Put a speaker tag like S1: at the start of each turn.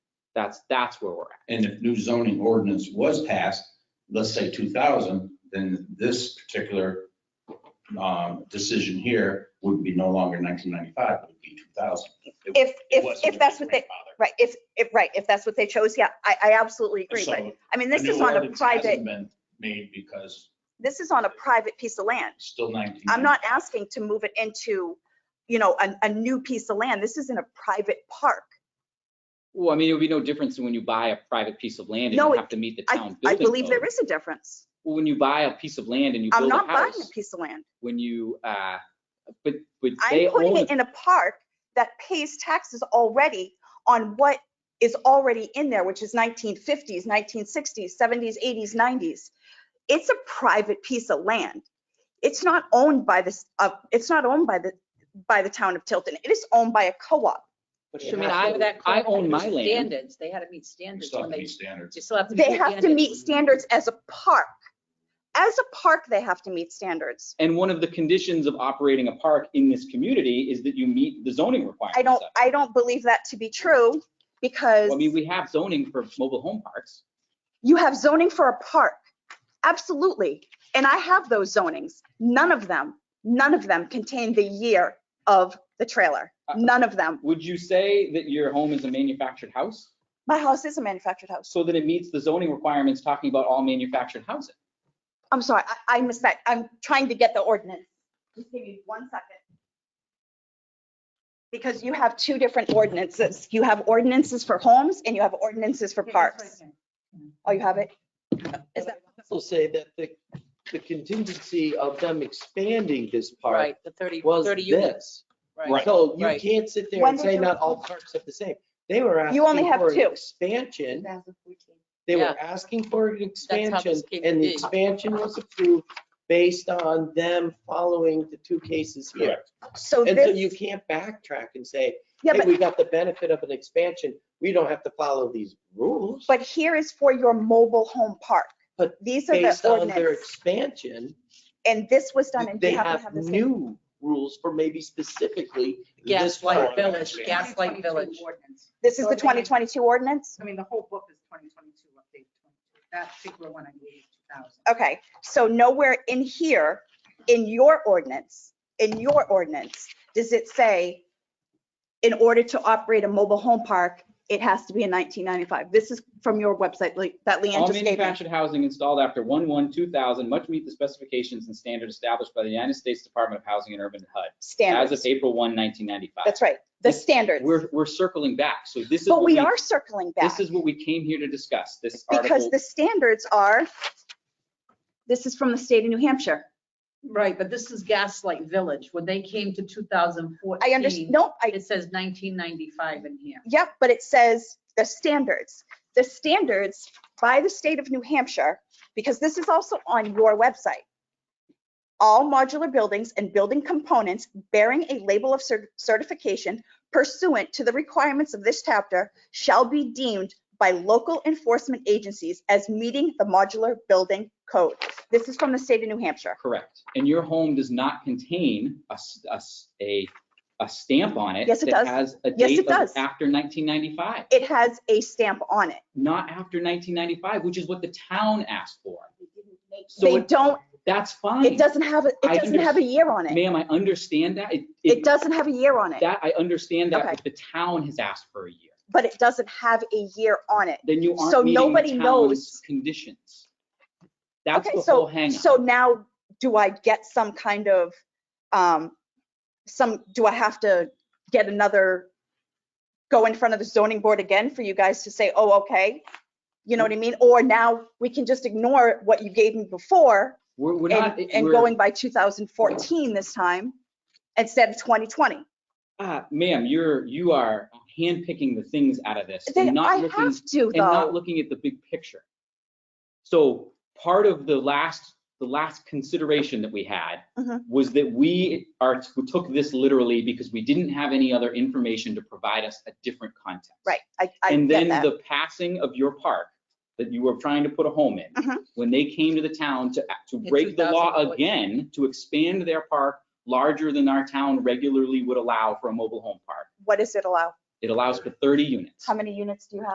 S1: That's, that's where we're at.
S2: And if new zoning ordinance was passed, let's say 2000, then this particular um, decision here would be no longer 1995, it would be 2000. It-
S3: If,
S2: it
S3: if,
S2: was
S3: if that's what they,
S2: grandfather.
S3: right, if, if, right, if that's what they chose, yeah, I, I absolutely agree. But,
S2: So
S3: I mean, this
S2: the new
S3: is on a
S2: ordinance hasn't
S3: private,
S2: Been made because
S3: this is on a private piece of land.
S2: it's still 19.
S3: I'm not asking to move it into, you know, a, a new piece of land. This is in a private park.
S1: Well, I mean, it would be no difference when you buy a private piece of land and
S3: No,
S1: you
S3: it-
S1: have to meet the
S3: I,
S1: town
S3: I
S1: building
S3: believe there
S1: code.
S3: is a difference.
S1: Well, When you buy a piece of land and you
S3: I'm
S1: build a
S3: not buying a
S1: house,
S3: piece of land.
S1: when you, uh, but, but they
S3: I'm putting
S1: own,
S3: it
S1: it.
S3: in a park that pays taxes already on what is already in there, which is 1950s, 1960s, 70s, 80s, 90s. It's a private piece of land. It's not owned by this, uh, it's not owned by the, by the town of Tilton. It is owned by a co-op.
S4: But
S1: I
S4: you
S1: mean,
S4: have
S1: I-
S4: to- that
S1: I
S4: company
S1: own my
S4: has
S1: land.
S4: Standards, they had to meet
S2: We
S4: standards
S2: still
S4: when
S2: have to
S4: they,
S2: meet standards.
S4: you still have to.
S3: They have to meet standards as a park. As a park, they have to meet standards.
S1: and one of the conditions of operating a park in this community is that you meet the zoning requirements.
S3: I don't,
S1: of it.
S3: I don't believe that to be true because
S1: Well, I mean, we have zoning for mobile home parks.
S3: you have zoning for a park. Absolutely. And I have those zonings. None of them, none of them contain the year of the trailer.
S5: Uh-uh.
S1: Uh,
S3: None of them.
S1: Would you say that your home is a manufactured house?
S3: My house is a manufactured house.
S1: So that it meets the zoning requirements talking about all manufactured housing.
S3: I'm sorry, I, I missed that. I'm trying to get the ordinance. Just give me one second. Because you have two different ordinances. You have ordinances for homes and you have ordinances for parks. Oh, you have it? Is that-
S5: also say that the, the contingency of them expanding this park
S4: Right, the 30,
S5: was
S4: 30 units.
S5: this.
S4: Right.
S5: So you
S4: Right.
S5: can't sit there
S3: When
S5: and say
S3: did you-
S5: not all parks are the same. They were
S3: You only
S5: asking
S3: have
S5: for an
S3: two.
S5: expansion. They were asking for an
S4: how
S5: expansion
S4: this came
S5: and
S4: to
S5: the
S4: be.
S5: expansion was approved based on them following the two cases here.
S3: So
S5: And so you
S3: this,
S5: can't backtrack and say,
S3: yeah,
S5: hey,
S3: but
S5: we got the benefit of an expansion. We don't have to follow these rules.
S3: But here is for your mobile home park.
S5: But
S3: These are the
S5: Based on their
S3: ordinance,
S5: expansion,
S3: and this was done, and
S5: they
S3: you have to
S5: have
S3: have this. in-
S5: new rules for maybe specifically this
S4: Gaslight
S5: part.
S4: Village, Gaslight Village.
S3: This is the 2022 ordinance?
S6: I mean, the whole book is 2022, update 22. That particular one, I believe, is 2000.
S3: Okay, so nowhere in here, in your ordinance, in your ordinance, does it say, in order to operate a mobile home park, it has to be in 1995? This is from your website, like, that Leanne
S1: All
S3: just gave me.
S1: manufactured housing installed after 1/1/2000 must meet the specifications and standards established by the United States Department of Housing and Urban HUD as of
S3: Standards,
S1: April 1, 1995.
S3: that's right, the
S1: This-
S3: standards.
S1: We're, we're circling back. So this is.
S3: But
S1: what
S3: we are circling back.
S1: This is what we came here to discuss, this
S3: Because
S1: article.
S3: the standards are, this is from the state of New Hampshire.
S4: Right, but this is Gaslight Village, when they came to 2014.
S3: I understand, nope, I,
S4: It says 1995 in here.
S3: yep, but it says the standards. The standards by the state of New Hampshire, because this is also on your website. All modular buildings and building components bearing a label of cer- certification pursuant to the requirements of this chapter shall be deemed by local enforcement agencies as meeting the modular building code. This is from the state of New Hampshire.
S1: Correct. And your home does not contain a, s- a s- a- a stamp on it.
S3: Yes, it
S1: that
S3: does.
S1: Has a
S3: Yes,
S1: date
S3: it
S1: of
S3: does.
S1: after 1995,
S3: It has a stamp on it.
S1: not after 1995, which is what the town asked for. So
S3: They
S1: it-
S3: don't,
S1: that's fine.
S3: it doesn't have, a
S1: I
S3: it doesn't have a year on it.
S1: Ma'am, I understand that. It,
S3: It
S1: it,
S3: doesn't have a year on it,
S1: that, I understand that,
S3: Okay.
S1: but the town has asked for a year.
S3: but it doesn't have a year on it.
S1: Then you aren't
S3: So
S1: meeting
S3: nobody
S1: the
S3: knows.
S1: town's conditions. That's
S3: Okay,
S1: the
S3: so-
S1: whole hang
S3: So now, do I get some kind of, um, some, do I have to get another, go in front of the zoning board again for you guys to say, oh, okay? You know what I mean? Or now we can just ignore what you gave me before
S1: We're, we're not.
S3: and, and
S1: we're-
S3: going by 2014 this time instead of 2020.
S1: Ah, ma'am, you're, you are handpicking the things out of this
S3: They-
S1: and
S3: I
S1: not looking,
S3: have to
S1: and not
S3: though.
S1: looking at the big picture. So part of the last, the last consideration that we had
S3: Mhm.
S1: was that we are, we took this literally because we didn't have any other information to provide us a different context.
S3: Right, I, I
S1: And
S3: get
S1: then
S3: that.
S1: the passing of your park that you were trying to put a home in,
S3: Mhm.
S1: when they came to the town to, to
S4: In
S1: break the law
S4: 2014.
S1: again, to expand their park larger than our town regularly would allow for a mobile home park.
S3: What does it allow?
S1: It allows for 30 units.
S3: How many units do you have?